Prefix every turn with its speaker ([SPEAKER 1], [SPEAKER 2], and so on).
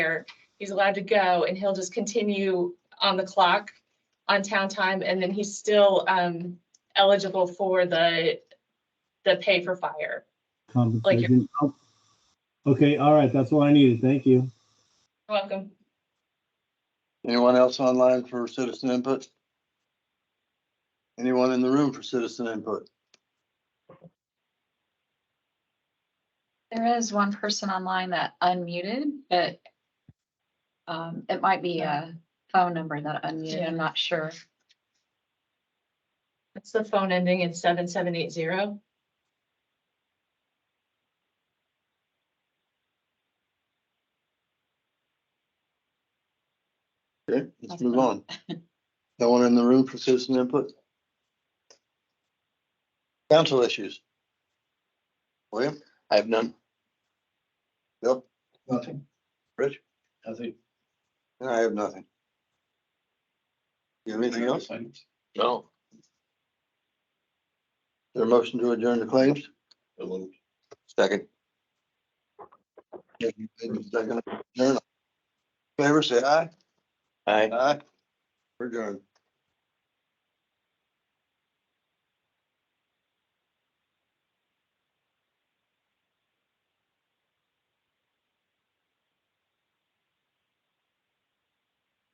[SPEAKER 1] there, he's allowed to go and he'll just continue on the clock on town time and then he's still um eligible for the the pay for fire.
[SPEAKER 2] conversation. Oh, Okay, all right, that's all I needed. Thank you.
[SPEAKER 1] You're Welcome.
[SPEAKER 3] Anyone else online for citizen input? Anyone in the room for citizen input?
[SPEAKER 4] There is one person online that unmuted, but um, it might be a phone number that unmuted. I'm not sure.
[SPEAKER 1] That's the phone ending in seven seven eight zero.
[SPEAKER 3] Okay, let's move on. No one in the room for citizen input? Council issues? William? I have none. Bill?
[SPEAKER 5] Nothing.
[SPEAKER 3] Rich?
[SPEAKER 5] Nothing.
[SPEAKER 3] No, I have nothing. You have anything else? Is
[SPEAKER 5] No.
[SPEAKER 3] there a motion to adjourn the claims?
[SPEAKER 6] Second.
[SPEAKER 3] Second. Adjourn. Favor, say aye.
[SPEAKER 6] Aye.
[SPEAKER 3] Aye. We're adjourned.